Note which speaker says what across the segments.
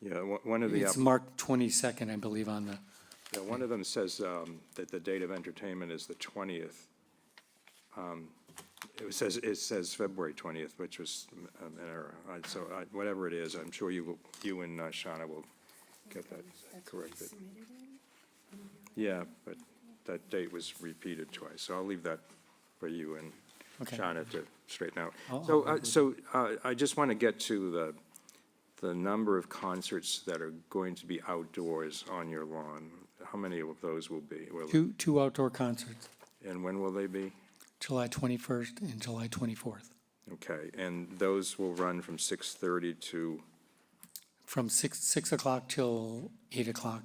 Speaker 1: Yeah, one- one of the, app-
Speaker 2: It's marked 22nd, I believe, on the,
Speaker 1: yeah, one of them says um, that the date of entertainment is the 20th. Um, It says, it says February 20th, which was um, an error. I- So I- whatever it is, I'm sure you, will- you and uh, Shauna will get that corrected. Yeah, but that date was repeated twice, so I'll leave that for you and
Speaker 2: Okay.
Speaker 1: Shauna to straighten out.
Speaker 2: I'll-
Speaker 1: So, uh, so uh, I just want to get to the, the number of concerts that are going to be outdoors on your lawn. How many of those will be? Will-
Speaker 2: two, two outdoor concerts,
Speaker 1: And when will they be?
Speaker 2: July 21st and July 24th,
Speaker 1: Okay, and those will run from 6:30 to,
Speaker 2: from 6, 6 o'clock till 8 o'clock.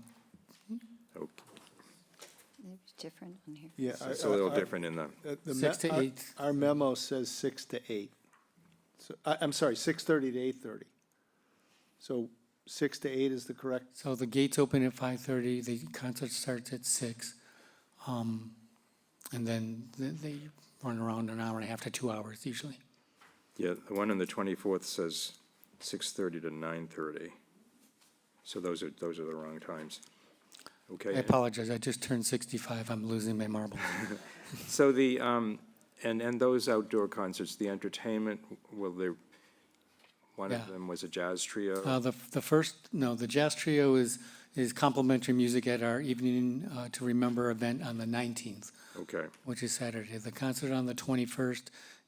Speaker 1: oh,
Speaker 3: It was different on here.
Speaker 4: Yeah.
Speaker 1: so
Speaker 4: I-
Speaker 1: it's a little
Speaker 4: I- I-
Speaker 1: different in the,
Speaker 4: uh, the
Speaker 2: Six
Speaker 4: me-
Speaker 2: to
Speaker 4: our-
Speaker 2: eight.
Speaker 4: Our memo says six to eight. So, I, I'm sorry, six thirty to eight thirty. So six to eight is the correct,
Speaker 2: So the gates open at 5:30, the concert starts at 6. um, And then th- they run around an hour and a half to two hours usually.
Speaker 1: yeah, the one on the 24th says 6:30 to 9:30. So those are, those are the wrong times. Okay?
Speaker 2: I
Speaker 1: and-
Speaker 2: apologize, I just turned 65, I'm losing my marbles.
Speaker 1: So the, um, and, and those outdoor concerts, the entertainment, will there, one of
Speaker 2: Yeah.
Speaker 1: them was a jazz trio?
Speaker 2: Uh, the, the first, no, the jazz trio is, is complimentary music at our Evening uh, to Remember event on the 19th,
Speaker 1: Okay,
Speaker 2: which is Saturday. The concert on the 21st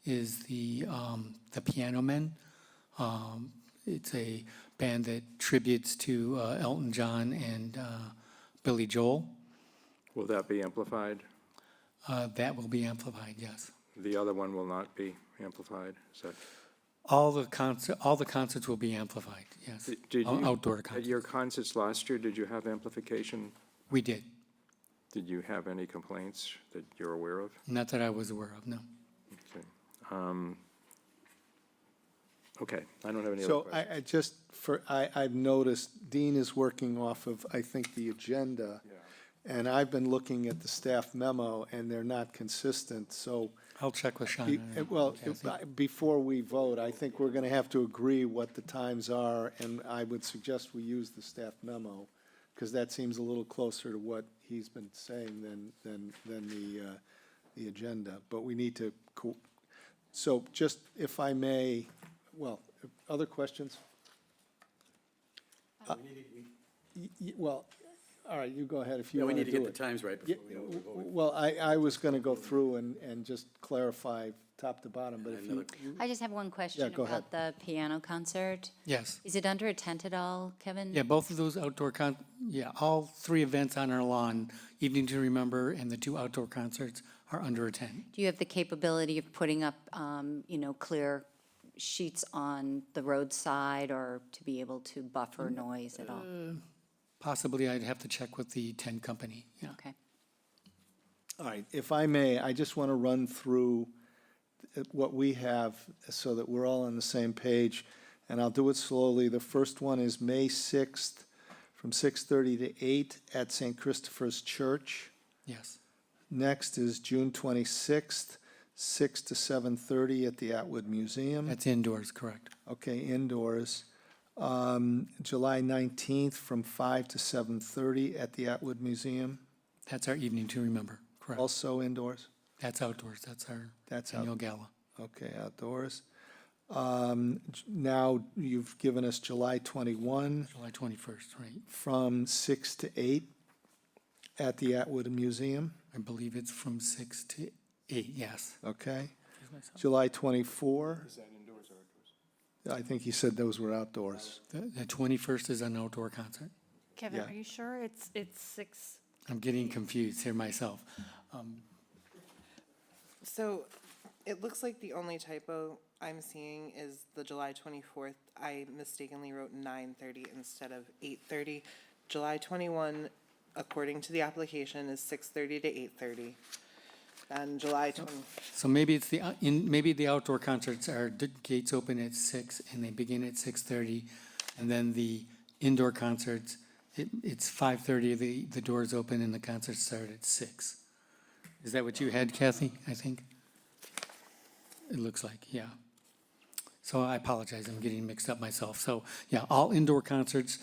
Speaker 2: is the, um, the Piano Men. Um, it's a band that tributes to uh, Elton John and uh, Billy Joel.
Speaker 1: will that be amplified?
Speaker 2: Uh, that will be amplified, yes.
Speaker 1: The other one will not be amplified, is that?
Speaker 2: All the concert, all the concerts will be amplified, yes.
Speaker 1: Did- did
Speaker 2: Out-
Speaker 1: you-
Speaker 2: Outdoor
Speaker 1: At your
Speaker 2: concerts.
Speaker 1: concerts last year, did you have amplification?
Speaker 2: We did,
Speaker 1: Did you have any complaints that you're aware of?
Speaker 2: not that I was aware of, no.
Speaker 1: Okay. Um, Okay, I don't have any other
Speaker 4: so
Speaker 1: questions.
Speaker 4: I, I just, for, I, I've noticed Dean is working off of, I think, the agenda. And I've been looking at the staff memo and they're not consistent, so.
Speaker 2: I'll check with
Speaker 4: Be-
Speaker 2: Sean.
Speaker 4: uh, Well, if- uh, before we vote, I think we're going to have to agree what the times are, and I would suggest we use the staff memo, because that seems a little closer to what he's been saying than, than, than the, uh, the agenda. But we need to, co- so just if I may, well, other questions?
Speaker 5: Uh,
Speaker 4: Y- y- Well, all right, you go ahead if you
Speaker 5: Yeah, we
Speaker 4: want to
Speaker 5: need
Speaker 4: do
Speaker 5: to
Speaker 4: it.
Speaker 5: get the times right
Speaker 4: Yeah,
Speaker 5: before we know what
Speaker 4: w-
Speaker 5: we're
Speaker 4: w-
Speaker 5: voting.
Speaker 4: Well, I, I was going to go through and, and just clarify top to bottom, but if you,
Speaker 3: I just have one question
Speaker 4: go ahead.
Speaker 3: about the piano concert.
Speaker 2: Yes.
Speaker 3: Is it under a tent at all, Kevin?
Speaker 2: Yeah, both of those outdoor con, yeah, all three events on our lawn, Evening to Remember and the two outdoor concerts are under a tent.
Speaker 3: Do you have the capability of putting up, um, you know, clear sheets on the roadside or to be able to buffer noise at all?
Speaker 2: Possibly I'd have to check with the tent company, yeah.
Speaker 3: Okay.
Speaker 4: all right, if I may, I just want to run through uh, what we have so that we're all on the same page, and I'll do it slowly. The first one is May 6th from 6:30 to 8 at St. Christopher's Church.
Speaker 2: Yes,
Speaker 4: Next is June 26th, 6 to 7:30 at the Atwood Museum.
Speaker 2: that's indoors, correct.
Speaker 4: Okay, indoors. Um, July 19th from 5 to 7:30 at the Atwood Museum,
Speaker 2: That's our Evening to Remember, correct.
Speaker 4: also indoors.
Speaker 2: That's outdoors, that's our
Speaker 4: That's out-
Speaker 2: annual gala.
Speaker 4: Okay, outdoors. Um, j- Now, you've given us July 21
Speaker 2: July 21st, right?
Speaker 4: from 6 to 8 at the Atwood Museum,
Speaker 2: I believe it's from 6 to 8, yes.
Speaker 4: okay? July 24. Is that indoors or outdoors? I think he said those were outdoors.
Speaker 2: The the 21st is an outdoor concert.
Speaker 6: Kevin,
Speaker 4: Yeah.
Speaker 6: are you sure it's, it's six?
Speaker 2: I'm getting confused here myself. Um,
Speaker 7: So it looks like the only typo I'm seeing is the July 24th. I mistakenly wrote 9:30 instead of 8:30. July 21, according to the application, is 6:30 to 8:30. And July 20,
Speaker 2: So maybe it's the, uh, in, maybe the outdoor concerts are, the gates open at six and they begin at six thirty. And then the indoor concerts, it, it's five thirty, the, the doors open and the concerts start at six. Is that what you had Kathy, I think? It looks like, yeah. So I apologize, I'm getting mixed up myself. So, yeah, all indoor concerts